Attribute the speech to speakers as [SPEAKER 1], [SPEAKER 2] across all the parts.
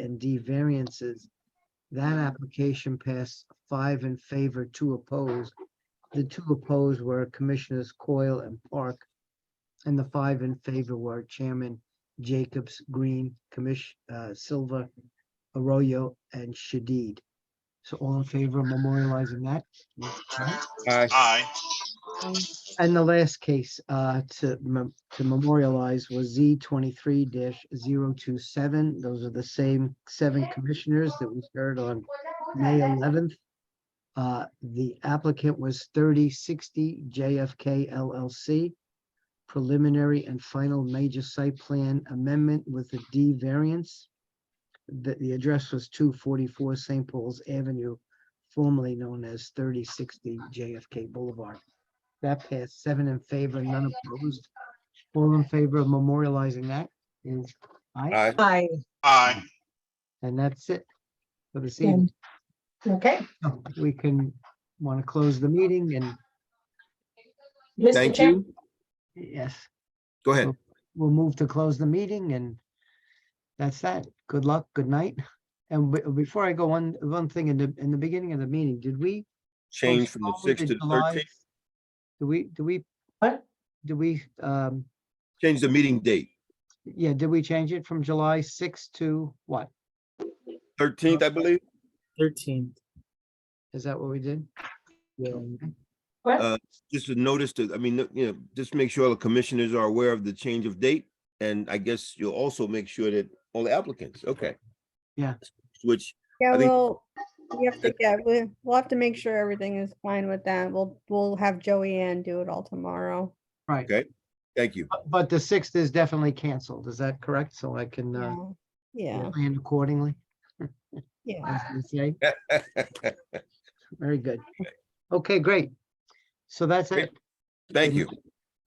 [SPEAKER 1] and D variances. That application passed five in favor, two opposed. The two opposed were Commissioners Coyle and Park. And the five in favor were Chairman Jacobs, Green, Commish, uh, Silva, Arroyo, and Shadid. So all in favor of memorializing that?
[SPEAKER 2] Aye.
[SPEAKER 3] Aye.
[SPEAKER 1] And the last case uh, to mem- to memorialize was Z twenty-three 27 Those are the same seven commissioners that we heard on May eleventh. uh, The applicant was thirty sixty JFK LLC. Preliminary and final major site plan amendment with a D variance. The, the address was two forty-four St. Paul's Avenue, formerly known as thirty sixty JFK Boulevard. That passed seven in favor, none opposed. All in favor of memorializing that is aye,
[SPEAKER 2] Aye.
[SPEAKER 4] Aye.
[SPEAKER 3] Aye.
[SPEAKER 1] and that's it. For this
[SPEAKER 4] Then-
[SPEAKER 1] evening,
[SPEAKER 4] Okay.
[SPEAKER 1] So we can, want to close the meeting and
[SPEAKER 4] Mr.
[SPEAKER 2] Thank
[SPEAKER 4] Chair,
[SPEAKER 2] you.
[SPEAKER 1] yes,
[SPEAKER 2] Go ahead.
[SPEAKER 1] we'll move to close the meeting and that's that. Good luck, good night. And be- before I go, one, one thing in the, in the beginning of the meeting, did we?
[SPEAKER 2] Change from the
[SPEAKER 1] postpone
[SPEAKER 2] sixth to the
[SPEAKER 1] Oh, July-
[SPEAKER 2] thirteenth.
[SPEAKER 1] Do we, do we?
[SPEAKER 4] What?
[SPEAKER 1] Do we, um,
[SPEAKER 2] Change the meeting date.
[SPEAKER 1] yeah, did we change it from July sixth to what?
[SPEAKER 2] Thirteenth, I believe.
[SPEAKER 5] Thirteenth.
[SPEAKER 1] Is that what we did?
[SPEAKER 4] what?
[SPEAKER 2] uh, Just a notice to, I mean, you know, just make sure all the commissioners are aware of the change of date. And I guess you'll also make sure that all the applicants, okay.
[SPEAKER 1] Yeah.
[SPEAKER 2] Which,
[SPEAKER 6] Yeah,
[SPEAKER 2] I think-
[SPEAKER 6] well, we have to, yeah, we- we'll have to make sure everything is fine with that. We'll, we'll have Joey Ann do it all tomorrow.
[SPEAKER 1] Right.
[SPEAKER 2] thank you.
[SPEAKER 1] But- But the sixth is definitely canceled, is that correct? So I can uh,
[SPEAKER 6] Yeah. Yeah,
[SPEAKER 1] plan accordingly,
[SPEAKER 6] yeah.
[SPEAKER 1] as they say. Very good. Okay, great. So that's
[SPEAKER 2] Great.
[SPEAKER 1] it.
[SPEAKER 2] Thank you.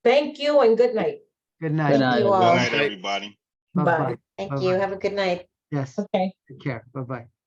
[SPEAKER 4] Thank you and good night.
[SPEAKER 1] Good
[SPEAKER 5] Good
[SPEAKER 1] night.
[SPEAKER 5] night.
[SPEAKER 7] You
[SPEAKER 3] Good
[SPEAKER 7] all.
[SPEAKER 3] night, everybody.
[SPEAKER 1] Bye-bye.
[SPEAKER 7] Thank
[SPEAKER 1] Bye-bye.
[SPEAKER 7] you. Have a good night.
[SPEAKER 1] Yes,
[SPEAKER 4] Okay.
[SPEAKER 1] take care. Bye-bye.